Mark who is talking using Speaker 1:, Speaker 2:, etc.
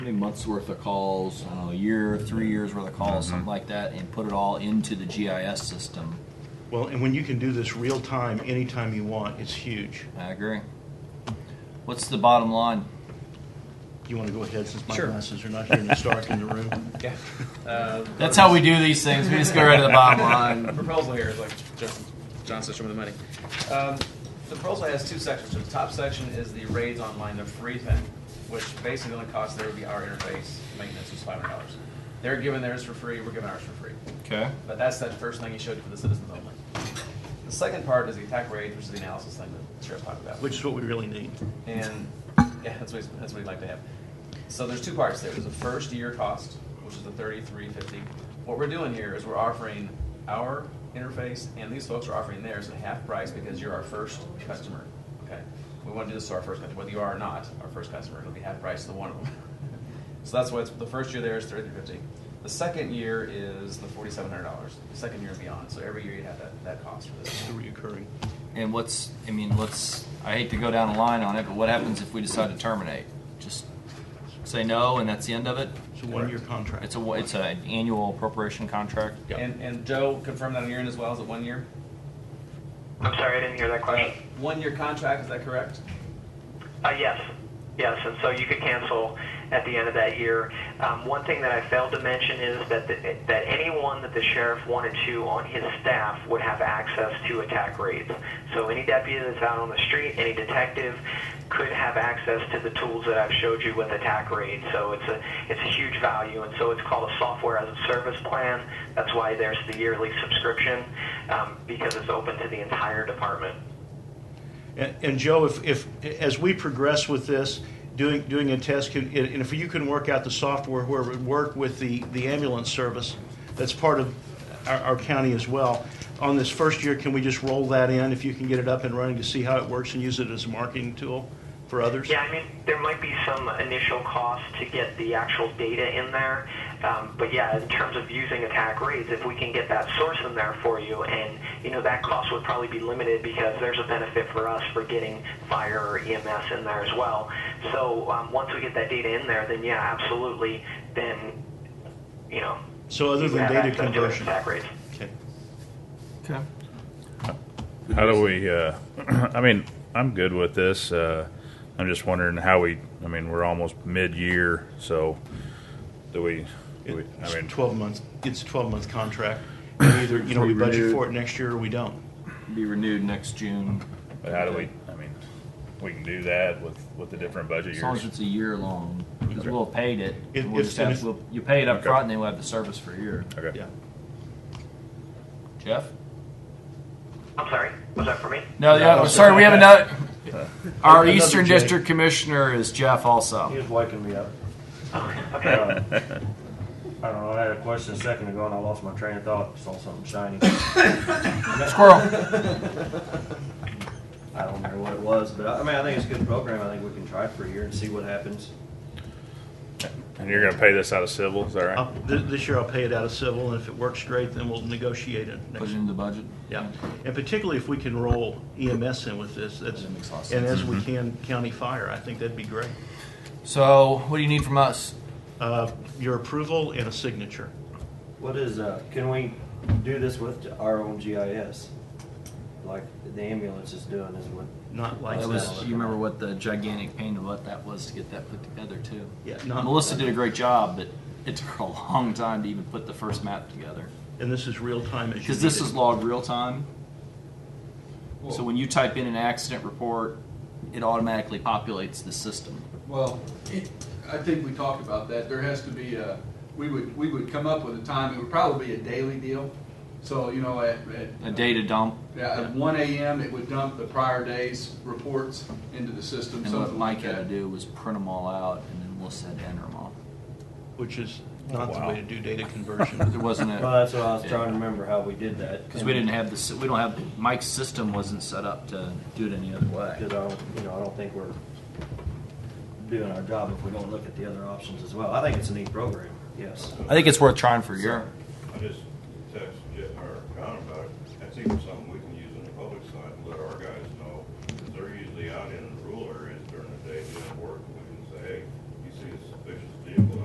Speaker 1: many months worth of calls, I don't know, a year, three years worth of calls, something like that, and put it all into the GIS system.
Speaker 2: Well, and when you can do this real time, anytime you want, it's huge.
Speaker 1: I agree. What's the bottom line?
Speaker 2: You want to go ahead since my
Speaker 3: Sure.
Speaker 2: glasses are not here and it's dark in the room?
Speaker 3: Yeah. Uh,
Speaker 1: That's how we do these things. We just go right to the bottom
Speaker 3: The
Speaker 1: line.
Speaker 3: proposal here is like Justin, John said, show me the money. Um, the proposal has two sections. So the top section is the raids online, the free thing, which basically the only cost there would be our interface maintenance was five hundred dollars. They're giving theirs for free, we're giving ours for free.
Speaker 1: Okay.
Speaker 3: But that's that first thing he showed you for the citizens only. The second part is the attack raids, which is the analysis thing that Sheriff talked about.
Speaker 2: Which is what we really need.
Speaker 3: And, yeah, that's what, he's- that's what we'd like to have. So there's two parts there. There's a first year cost, which is the thirty-three fifty. What we're doing here is we're offering our interface and these folks are offering theirs at half price because you're our first customer, okay? We want to do this to our first customer, whether you are or not our first customer, it'll be half price to one of them. So that's why it's, the first year there is thirty-three fifty. The second year is the forty-seven hundred dollars, the second year and beyond. So every year you have that, that cost for this.
Speaker 2: It's the reoccurring.
Speaker 1: And what's, I mean, what's, I hate to go down a line on it, but what happens if we decide to terminate? Just say no and that's the end of it?
Speaker 2: It's a one-year contract.
Speaker 1: It's a, it's an annual appropriation contract?
Speaker 2: Yeah.
Speaker 3: And, and Joe confirmed that on your end as well, is it one year?
Speaker 4: I'm sorry, I didn't hear that
Speaker 3: Uh,
Speaker 4: question.
Speaker 3: One-year contract, is that correct?
Speaker 4: Uh, yes, yes, and so you could cancel at the end of that year. Um, one thing that I failed to mention is that the, that anyone that the sheriff wanted to on his staff would have access to attack raids. So any deputy that's out on the street, any detective, could have access to the tools that I've showed you with attack raid. So it's a it's a huge value, and so it's called a software as a service plan. That's why there's the yearly subscription um, because it's open to the entire department.
Speaker 2: And, and Joe, if, if, as we progress with this, doing, doing a test, could- and and if you can work out the software where it would work with the, the ambulance service, that's part of our, our county as well. On this first year, can we just roll that in, if you can get it up and running to see how it works and use it as a marketing tool for others?
Speaker 4: Yeah, I mean, there might be some initial cost to get the actual data in there. Um, but yeah, in terms of using attack rates, if we can get that source in there for you, and you know that cost would probably be limited because there's a benefit for us for getting fire or EMS in there as well. So um, once we get that data in there, then yeah, absolutely. Then you know,
Speaker 2: So other
Speaker 4: you
Speaker 2: than
Speaker 4: have
Speaker 2: data
Speaker 4: access to
Speaker 2: conversion.
Speaker 4: attack rates.
Speaker 2: Okay.
Speaker 1: Okay.
Speaker 5: How do we? Uh, I mean, I'm good with this. Uh, I'm just wondering how we. I mean, we're almost mid-year, so do we? Do we I mean,
Speaker 2: It's twelve months, it's a twelve-month contract. And Either, you know, we budget
Speaker 1: Renewed.
Speaker 2: for it next year or we don't.
Speaker 1: Be renewed next June,
Speaker 5: but how do we? I mean, we can do that with with the different budget
Speaker 1: as long
Speaker 5: years.
Speaker 1: as it's a year long, because we'll have paid it.
Speaker 2: If-
Speaker 1: We'll
Speaker 2: if-
Speaker 1: just
Speaker 2: and
Speaker 1: have,
Speaker 2: if-
Speaker 1: we'll- you pay it up
Speaker 5: Okay.
Speaker 1: front, and then we'll have the service for a year.
Speaker 5: Okay.
Speaker 2: Yeah.
Speaker 1: Jeff?
Speaker 4: I'm sorry, was that for me?
Speaker 1: No,
Speaker 2: No,
Speaker 1: yeah,
Speaker 2: no,
Speaker 1: sorry, we have
Speaker 2: sorry.
Speaker 1: another. Our
Speaker 2: Another
Speaker 1: Eastern
Speaker 2: Jay.
Speaker 1: District Commissioner is Jeff
Speaker 6: He
Speaker 1: also.
Speaker 6: was waking me up.
Speaker 4: Okay.
Speaker 6: Uh, I don't know, I had a question a second ago and I lost my train of thought, saw something shiny.
Speaker 1: Squirrel.
Speaker 6: I don't remember what it was, but I, I mean, I think it's a good program, I think we can try it for a year and see what happens.
Speaker 5: And you're going to pay this out of civil, is that
Speaker 1: Uh,
Speaker 5: right?
Speaker 2: I'll- th- This year I'll pay it out of civil, and if it works great, then we'll negotiate it next
Speaker 1: Put it in the budget.
Speaker 2: Yeah, and particularly if we can roll EMS in with this, that's,
Speaker 1: That makes a lot of
Speaker 2: and as
Speaker 5: Mm-hmm.
Speaker 2: we can county fire, I think that'd be great.
Speaker 1: So, what do you need from us?
Speaker 2: Uh, Your approval and a signature.
Speaker 6: What is, uh, can we do this with our own GIS? Like the ambulance is doing is what,
Speaker 2: Not like
Speaker 1: That
Speaker 6: That
Speaker 1: was,
Speaker 6: was-
Speaker 2: that.
Speaker 1: you remember what the gigantic pain of what that was to get that put together too.
Speaker 2: Yeah, not-
Speaker 1: Melissa did a great job, but it took her a long time to even put the first map together.
Speaker 2: And this is real time as you
Speaker 1: Because this
Speaker 2: need it.
Speaker 1: is logged real time. So when you type in an accident report, it automatically populates the system.
Speaker 7: Well, it- I think we talked about that. There has to be a, we would, we would come up with a time, it would probably be a daily deal. So, you know, at, at.
Speaker 1: A data dump
Speaker 7: Yeah, at one AM, it would dump the prior day's reports into the system,
Speaker 1: And what
Speaker 7: something
Speaker 1: Mike
Speaker 7: like
Speaker 1: had to
Speaker 7: that.
Speaker 1: do was print them all out, and then Melissa had to enter them all.
Speaker 2: Which is not the
Speaker 5: Wow.
Speaker 2: way to do data
Speaker 1: There
Speaker 2: conversion.
Speaker 1: wasn't
Speaker 6: well,
Speaker 1: a,
Speaker 6: that's what I was trying to remember how we did that.
Speaker 1: because we didn't have the, s- we don't have, Mike's system wasn't set up to do it any other way.
Speaker 6: Because I don't, you know, I don't think we're doing our job if we don't look at the other options as well. I think it's a neat program, yes.
Speaker 1: I think it's worth trying for a year.
Speaker 8: I just texted Jeff or John about it. That's even something